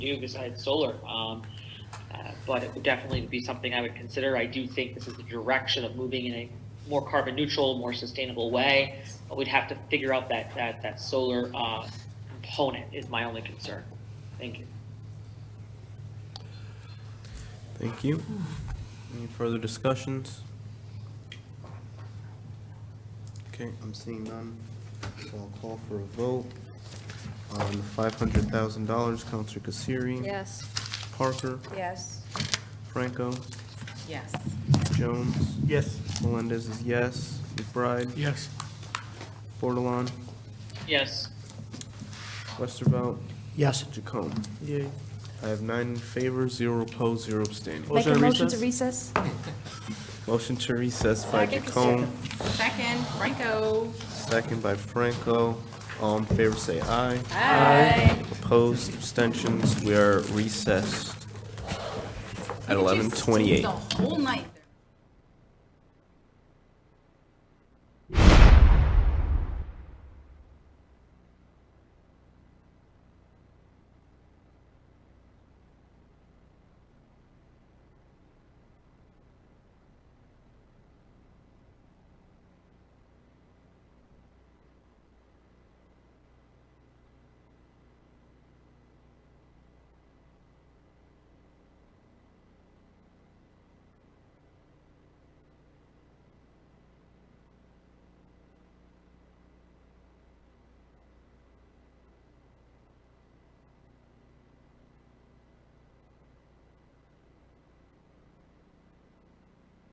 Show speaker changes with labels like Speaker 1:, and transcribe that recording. Speaker 1: do besides solar. Um, uh, but it would definitely be something I would consider. I do think this is the direction of moving in a more carbon neutral, more sustainable way. But we'd have to figure out that, that, that solar, uh, component is my only concern. Thank you.
Speaker 2: Thank you. Any further discussions? Okay, I'm seeing none, so I'll call for a vote on the five hundred thousand dollars, Counselor Kasiri.
Speaker 3: Yes.
Speaker 2: Parker,
Speaker 3: Yes.
Speaker 2: Franco,
Speaker 3: Yes.
Speaker 2: Jones,
Speaker 4: Yes.
Speaker 2: Melendez is yes, McBride,
Speaker 4: Yes.
Speaker 2: Bordelon,
Speaker 1: Yes,
Speaker 2: Westervelt,
Speaker 4: Yes.
Speaker 2: Jacome.
Speaker 4: Yay.
Speaker 2: I have nine in favor, zero opposed, zero abstaining.
Speaker 3: Make a motion to
Speaker 4: recess?
Speaker 3: recess?
Speaker 2: Motion to recess by Jacome,
Speaker 5: Second, Franco.
Speaker 2: second by Franco. All in favor, say aye.
Speaker 5: Hi.
Speaker 2: Opposed, abstentions, we are recessed at
Speaker 5: You could just
Speaker 2: 11:28.
Speaker 5: The whole night.